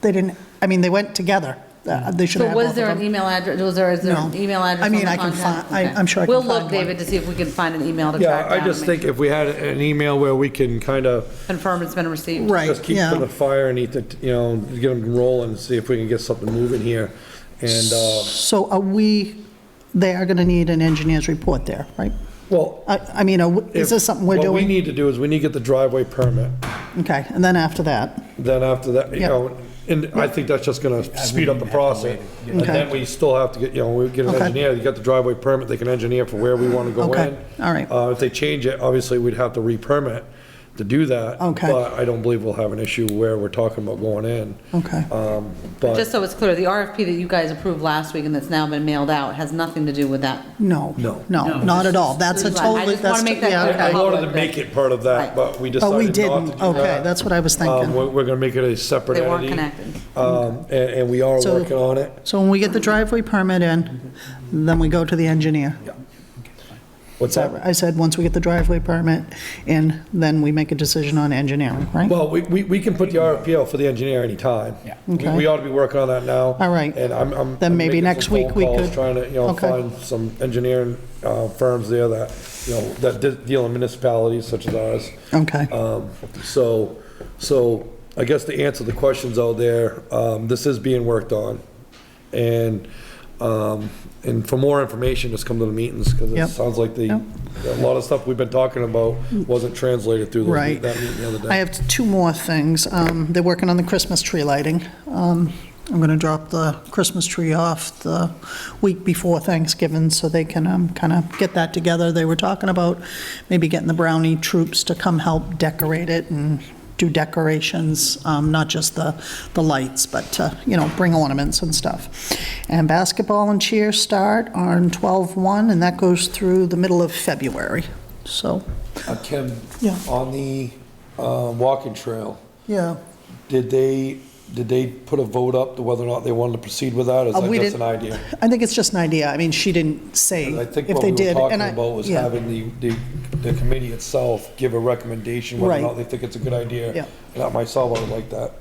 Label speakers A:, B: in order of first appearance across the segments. A: They didn't, I mean, they went together. Uh, They should have
B: So
A: both
B: was
A: of
B: there an
A: them.
B: email address, was there, is there an
A: No.
B: email
A: I
B: address on
A: mean,
B: the
A: I can
B: contact?
A: fi- I-
B: Okay.
A: I'm sure I can
B: We'll
A: find
B: look,
A: one.
B: David, to see if we can find an email to track
C: Yeah,
B: down.
C: I just
B: and
C: think if we had an email where we can kind of
B: Confirm it's been received.
A: Right,
C: just keep to the
A: yeah.
C: fire and eat the, you know, get them rolling, see if we can get something moving here. And, uh,
A: So are we, they are going to need an engineer's report there, right?
C: well.
A: I I mean, are we- is
C: if-
A: this something we're
C: What we
A: doing?
C: need to do is we need to get the driveway permit.
A: Okay, and then after that,
C: Then after that, you
A: Yeah.
C: know, and I think that's just gonna speed up the process. And
A: Okay.
C: then we still have to get, you know, we get an
A: Okay.
C: engineer, you got the driveway permit, they can engineer for where we wanna go
A: Okay,
C: in.
A: all right.
C: Uh, if they change it, obviously, we'd have to re-permit to do that.
A: Okay.
C: But I don't believe we'll have an issue where we're talking about going in.
A: okay,
C: Um, but,
B: Just so it's clear, the RFP that you guys approved last week and that's now been mailed out has nothing to do with that.
A: no.
C: No.
A: No, not at all. That's a
B: This is fine. I
A: totally,
B: just wanna
A: that's,
B: make that clear.
A: yeah.
C: I wanted to make it part of that, but we decided
A: But we
C: not to do
A: didn't, okay,
C: that.
A: that's what I was
C: Um,
A: thinking.
C: we're, we're gonna make it a separate
B: They
C: entity.
B: weren't connected.
C: Um, and, and we are
A: So-
C: working on it.
A: So when we get the driveway permit in, then we go to the engineer.
C: What's that?
A: I said, once we get the driveway permit in, then we make a decision on engineering, right?
C: Well, we, we, we can put the RFP out for the engineer anytime. Yeah.
A: Okay.
C: We ought to be working on that now.
A: All right.
C: And I'm, I'm.
A: Then
C: I'm
A: maybe
C: making some
A: next week
C: phone
A: we
C: calls,
A: could-
C: Trying to, you know,
A: Okay.
C: find some engineering, uh, firms there that, you know, that de- deal in municipalities such as ours.
A: Okay,
C: Um, so, so I guess to answer the questions out there, um, this is being worked on. And, um, and for more information, just come to the meetings, because it
A: Yep.
C: sounds like the,
A: Yep.
C: a lot of stuff we've been talking about wasn't translated through those meet-
A: right.
C: that meeting the other day.
A: I have two more things. Um, They're working on the Christmas tree lighting. Um, I'm going to drop the Christmas tree off the week before Thanksgiving so they can kind of get that together. They were talking about maybe getting the brownie troops to come help decorate it and do decorations, um, not just the, the lights, but, uh, you know, bring ornaments and stuff. And basketball and cheer start on 12/1, and that goes through the middle of February, so,
C: Uh, Kim,
A: Yeah.
C: on the uh, walking trail,
A: yeah.
C: did they, did they put a vote up to whether or not they wanted to proceed with that? Is
A: Uh,
C: that
A: we
C: just an
A: didn't-
C: idea?
A: I think it's just an idea. I mean, she didn't say
C: I
A: if
C: think what
A: they
C: we were
A: did.
C: talking
A: and I-
C: about was
A: yeah.
C: having the, the- the committee itself give a recommendation whether or
A: Right.
C: not they think it's a good idea.
A: Yeah.
C: And I myself, I would like that.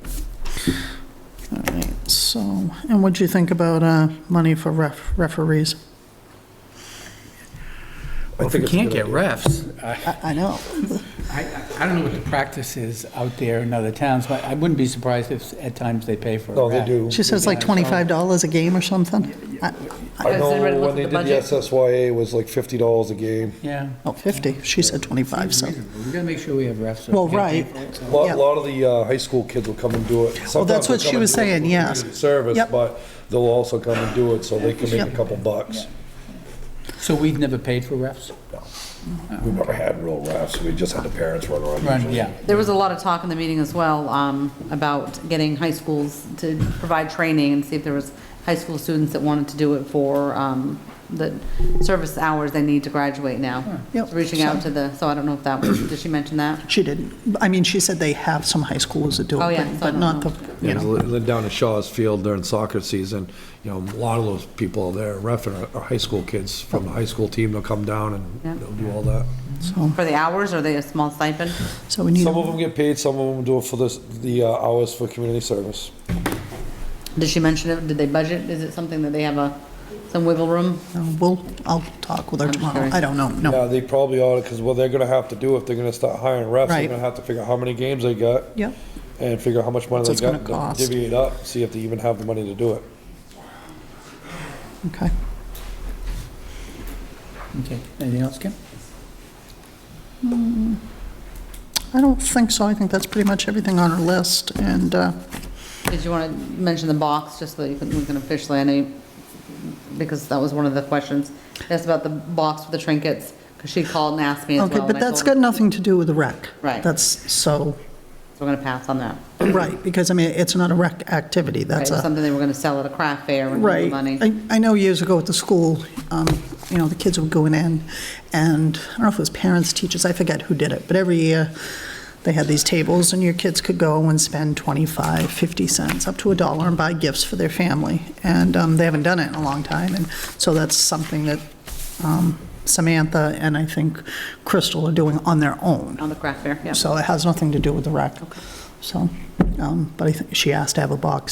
A: All right, so, and what'd you think about uh, money for ref- referees?
C: I
D: Well, If we
C: think it's a
D: can't
C: good
D: get
C: idea.
D: refs, I,
A: I I know.
D: I- I don't know what the practice is out there in other towns, but I wouldn't be surprised if at times they pay for a
C: No, Oh, they
D: ref.
C: do.
A: She says like $25 a game or something? I-
C: I
B: Has anybody looked
C: know when
B: at
C: they
B: the
C: did the
B: budget?
C: SSYA, it was like fifty dollars a game.
D: Yeah.
A: Oh, 50. She said 25, so.
D: We gotta make sure we have refs.
A: Well, right.
C: A lot,
A: Yeah.
C: lot of the uh, high school kids will come and do it. Sometimes
A: that's
C: they'll
A: what she
C: come and
A: was
C: do it for
A: saying, yes.
C: community Service,
A: Yep.
C: but they'll also come and do it, so they can make
A: Yep.
C: a couple bucks.
D: So we've never paid for refs?
C: We've never had real refs, we just had the parents run around.
D: Right, yeah.
B: There was a lot of talk in the meeting as well um, about getting high schools to provide training and see if there was high school students that wanted to do it for um, the service hours they need to graduate now.
A: Yep.
B: Reaching out to the, so I don't know if that was, did she mention that?
A: She didn't. I mean, she said they have some high schools that do
B: Oh,
A: it,
B: yeah,
A: but-
B: so I
A: but
B: don't
A: not
B: know.
A: the, you
C: Yeah,
A: know.
C: lived down at Shaw's Field during soccer season, you know, a lot of those people there, ref are are high school kids from the high school team, they'll come down
B: Yeah.
C: and they'll do all that.
B: For the hours, or they a small stipend?
A: So we need,
C: Some of them get paid, some of them do it for this, the uh, hours for community service.
B: Did she mention it? Did they budget? Is it something that they have a, some wiggle room?
A: uh, we'll, I'll talk with her tomorrow.
B: sorry.
A: I don't know, no.
C: Yeah, they probably ought to, because what they're gonna have to do if they're gonna start hiring refs, they're
A: Right.
C: gonna have to figure out how many games they got
A: Yep,
C: and figure out how much money
A: What's
C: they
A: it's
C: got,
A: gonna
C: and
A: cost?
C: divvy it up, see if they even have the money to do it.
A: okay.
D: Okay, anything else, Kim?
A: I don't think so. I think that's pretty much everything on her list, and, uh,
B: Did you want to mention the box, just so that you can, we can officially, I know, you- because that was one of the questions. That's about the box with the trinkets, because she called and asked me as well.
A: Okay,
B: and
A: but
B: I
A: that's
B: told
A: got
B: her-
A: nothing to do with the rec.
B: Right.
A: That's so,
B: so We're going to pass on that.
A: right, because, I mean, it's not a rec activity,
B: Right,
A: that's
B: It was
A: a,
B: something they were going to sell at a craft fair and make
A: right.
B: money.
A: I I know years ago at the school, um, you know, the kids would go in and, and I don't know if it was parents, teachers, I forget who did it, but every year, they had these tables, and your kids could go and spend 25, 50 cents, up to a dollar, and buy gifts for their family. And um, they haven't done it in a long time, and so that's something that um, Samantha and I think Crystal are doing on their own.
B: On the craft fair, yeah.
A: So it has nothing to do with the rec. So, um, but I think she asked to have a box